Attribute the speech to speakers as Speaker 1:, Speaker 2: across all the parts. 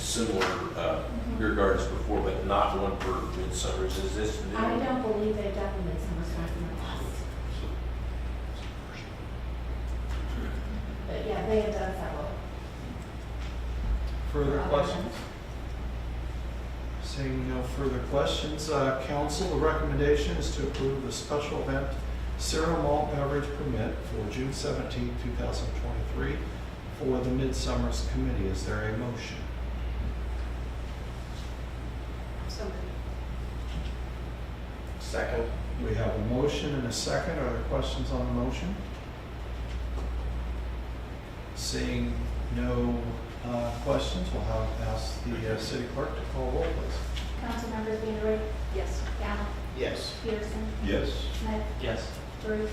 Speaker 1: similar uh, beer gardens before, but not one for Midsummer's. Is this new?
Speaker 2: I don't believe they've done the midsummer storm in the past, but yeah, they have done several.
Speaker 3: Further
Speaker 2: other
Speaker 3: questions?
Speaker 2: ones.
Speaker 3: Seeing no further questions, uh, council, the recommendation is to approve the special event cereal malt beverage permit for June seventeenth, two thousand twenty-three for the Midsummer's Committee. Is there a motion?
Speaker 4: So moved.
Speaker 1: Second.
Speaker 3: We have a motion and a second. Are there questions on the motion? Seeing no uh, questions, we'll have, ask the uh, city clerk to call roll, please.
Speaker 2: Councilmembers Leander,
Speaker 4: Yes.
Speaker 2: Gallo,
Speaker 1: Yes.
Speaker 2: Peterson,
Speaker 1: Yes.
Speaker 2: Smith,
Speaker 3: Yes.
Speaker 2: Bruce,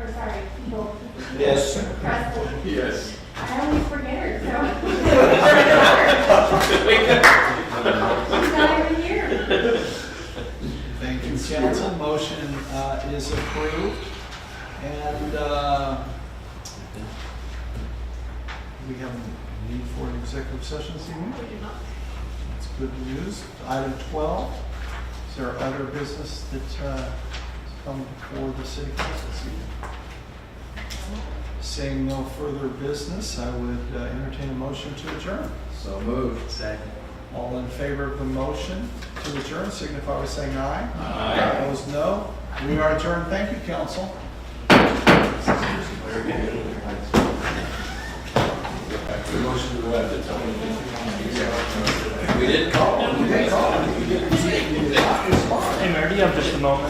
Speaker 2: or sorry, Bull,
Speaker 1: Yes.
Speaker 2: Presley.
Speaker 1: Yes.
Speaker 2: I always forget her, so. She's not even here.
Speaker 3: Thank you, council. Motion uh, is approved. And uh, we have a need for an executive session this evening.
Speaker 4: We do not.
Speaker 3: That's good news. Item 12, is there other business that uh, has come before the city council this evening? Seeing no further business, I would uh, entertain a motion to adjourn.
Speaker 1: So moved. Second.
Speaker 3: All in favor of the motion to adjourn, signify by saying aye.
Speaker 1: Aye.
Speaker 3: Opposed, no. We are adjourned. Thank you, council.
Speaker 1: The motion to have the We didn't call.
Speaker 5: Hey, Mayor, do you have just a moment?